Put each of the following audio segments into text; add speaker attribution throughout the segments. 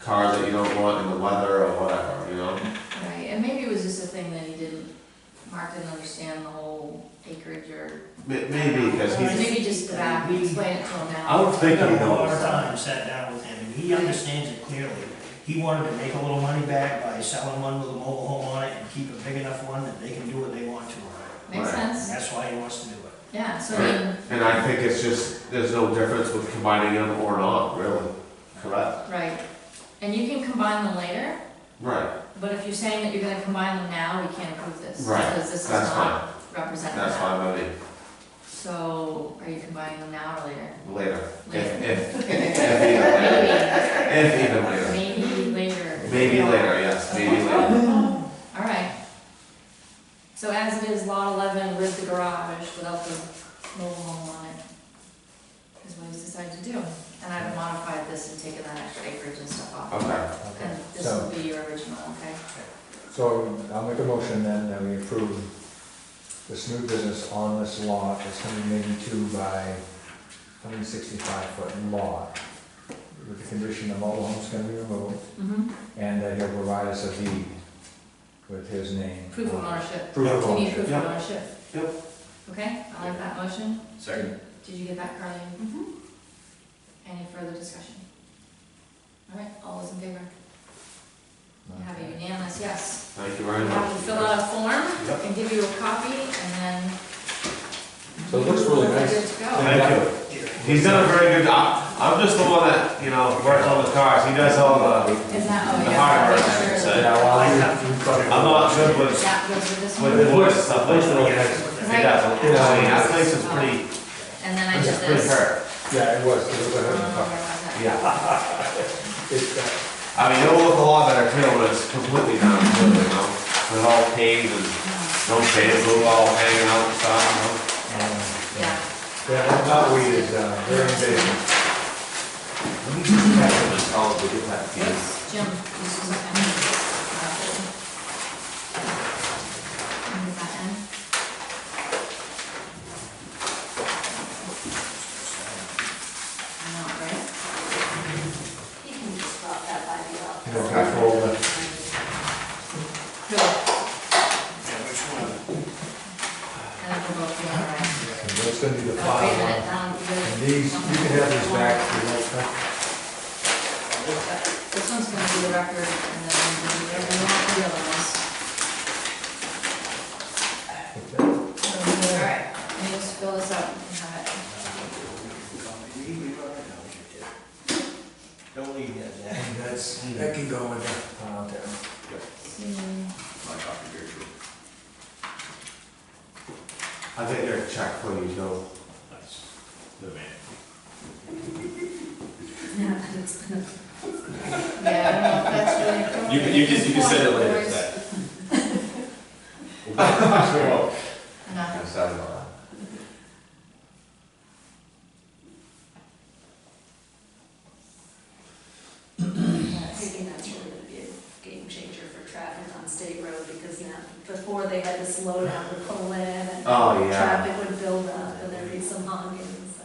Speaker 1: car that you don't want in the weather or whatever, you know?
Speaker 2: Right, and maybe it was just a thing that he didn't, Mark didn't understand the whole acreage or,
Speaker 1: May- Maybe, because
Speaker 2: or
Speaker 1: he's,
Speaker 2: maybe just that, we explained it to him now.
Speaker 3: I would
Speaker 4: I
Speaker 3: think
Speaker 4: got
Speaker 3: he
Speaker 4: a lot of
Speaker 3: knows.
Speaker 4: time, sat down with him, and he understands it clearly. He wanted to make a little money back by selling one with a mobile home on it and keep a big enough one that they can do what they want to on it.
Speaker 2: Makes
Speaker 1: Right.
Speaker 4: And
Speaker 2: sense,
Speaker 4: that's why he wants to do it.
Speaker 2: yeah, so then,
Speaker 1: and I think it's just, there's no difference with combining them or not, really. Correct?
Speaker 2: right, and you can combine them later,
Speaker 1: Right,
Speaker 2: but if you're saying that you're gonna combine them now, we can't approve this.
Speaker 1: Right,
Speaker 2: Because this is
Speaker 1: that's
Speaker 2: not
Speaker 1: fine,
Speaker 2: representing
Speaker 1: that's
Speaker 2: that.
Speaker 1: fine with me,
Speaker 2: So, are you combining them now or later?
Speaker 1: later. If,
Speaker 2: Later.
Speaker 1: if, if even later, if even later.
Speaker 2: Maybe, maybe later.
Speaker 1: Maybe later, yes, maybe later.
Speaker 2: All right. So as it is, lot eleven with the garage without the mobile home on it is what he's decided to do. And I've modified this and taken that extra acreage and stuff off.
Speaker 1: Okay,
Speaker 5: Okay,
Speaker 2: And this will
Speaker 5: so,
Speaker 2: be your original, okay?
Speaker 5: so I'll make a motion then that we approve this new business on this lot, this hundred and eighty-two by hundred and sixty-five foot lot. With the condition the mobile home's gonna be removed,
Speaker 2: Mm-hmm.
Speaker 5: and that he'll provide us a deed with his name.
Speaker 2: Proof of ownership.
Speaker 5: Proof of
Speaker 2: You need proof
Speaker 5: ownership.
Speaker 2: of
Speaker 1: Yep.
Speaker 2: ownership.
Speaker 1: Yep.
Speaker 2: Okay, I like that motion.
Speaker 6: Second.
Speaker 2: Did you get that, Carly? Mm-hmm. Any further discussion? All right, all those in favor? You have a unanimous yes.
Speaker 1: thank you very
Speaker 2: You
Speaker 1: much.
Speaker 2: have to fill out a form
Speaker 1: Yep.
Speaker 2: and give you a copy and then.
Speaker 5: So it looks really
Speaker 2: You're
Speaker 5: nice.
Speaker 2: good to go.
Speaker 1: Thank you. He's done a very good job. I'm just the one that, you know, works on the cars. He does all the,
Speaker 2: Is that, oh
Speaker 1: The
Speaker 2: yeah.
Speaker 1: hardware,
Speaker 2: that's true.
Speaker 1: so-
Speaker 5: Yeah, well,
Speaker 4: I
Speaker 5: I'll-
Speaker 4: have to put it-
Speaker 1: I'm not good with,
Speaker 2: That goes with this
Speaker 1: with
Speaker 2: one.
Speaker 1: the voice and stuff like that.
Speaker 4: Yeah.
Speaker 1: He does, you know, I mean, that place is pretty,
Speaker 2: And then I
Speaker 1: it's
Speaker 2: did
Speaker 1: pretty
Speaker 2: this.
Speaker 1: hurt.
Speaker 5: Yeah, it was, it was a
Speaker 2: Um,
Speaker 5: hundred
Speaker 2: where
Speaker 5: and five.
Speaker 2: was that?
Speaker 1: Yeah.
Speaker 5: It's, uh,
Speaker 1: I mean, it'll look a lot better too when it's completely done, you know, with all paved and no paved, it's all hanging out and stuff,
Speaker 5: um,
Speaker 2: Yeah.
Speaker 5: Yeah, that knotweed is, uh, very invasive.
Speaker 1: you know. Let me just check on this, I'll have to get that to you.
Speaker 2: Yes, Jim, this is an end. Is that end? I know, right?
Speaker 7: You can just drop that by the office.
Speaker 5: You know, I told them,
Speaker 2: Cool.
Speaker 4: Yeah, which one?
Speaker 2: And then we'll go through our end.
Speaker 5: and that's gonna be the
Speaker 2: Oh, wait a
Speaker 5: final one.
Speaker 2: minute, um,
Speaker 5: And
Speaker 2: the-
Speaker 5: these, you can have these back if you want, huh?
Speaker 2: This one's gonna be the record, and then we'll do whatever you want with the other ones. Alright, let me just fill this up and have it.
Speaker 4: Don't leave that, Zach.
Speaker 5: And that's, that can go in Uh, the pile down.
Speaker 2: See,
Speaker 6: My copy here, too.
Speaker 1: I think they're check for you, though.
Speaker 6: Nice. The man.
Speaker 2: Yeah, I don't know if that's really appropriate.
Speaker 6: You can- you can- you can send it later,
Speaker 2: Voice.
Speaker 6: Zach.
Speaker 2: Enough.
Speaker 1: Sorry about that.
Speaker 7: I think that's really gonna be a game changer for traffic on State Road, because now, before they had to slow down to pull in, and
Speaker 1: Oh, yeah,
Speaker 7: traffic would build up, and there'd be some honking, so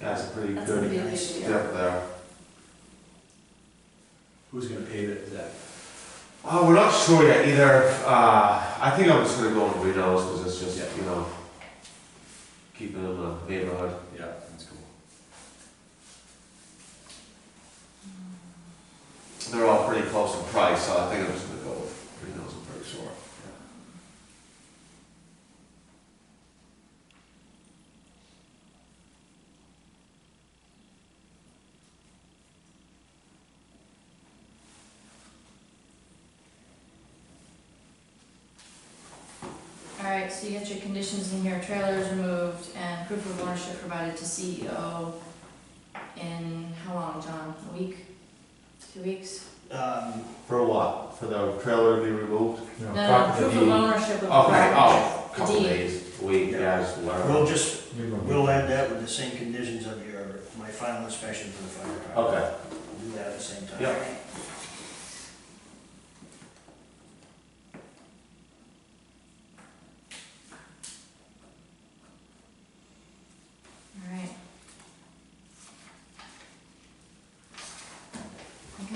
Speaker 1: that's a pretty
Speaker 7: that's gonna be
Speaker 1: good
Speaker 7: an issue.
Speaker 1: step there.
Speaker 6: Who's gonna pay that, Zach?
Speaker 1: Oh, we're not sure yet either. Uh, I think I'm just gonna go with Reno's because it's just,
Speaker 6: Yeah.
Speaker 1: you know, keeping it in the neighborhood.
Speaker 6: Yeah, that's cool.
Speaker 1: They're all pretty close in price, so I think I'm just gonna go with Reno's, I'm pretty sure.
Speaker 2: Alright, so you get your conditions in here, trailers removed and proof of ownership provided to CEO in how long, John? A week? Two weeks?
Speaker 4: Um,
Speaker 1: For what? For the trailer to be removed?
Speaker 5: No,
Speaker 2: No, no,
Speaker 5: copy the
Speaker 2: proof of
Speaker 5: deed.
Speaker 2: ownership of the
Speaker 1: Okay,
Speaker 2: property.
Speaker 1: oh, couple
Speaker 2: Deed.
Speaker 1: days, a week, yeah, just
Speaker 4: We'll
Speaker 1: whatever.
Speaker 4: just,
Speaker 5: You remember.
Speaker 4: we'll add that with the same conditions of your, my final inspection for the fire department.
Speaker 1: Okay,
Speaker 4: We'll Do that at the same time.
Speaker 1: Yep.
Speaker 2: Alright.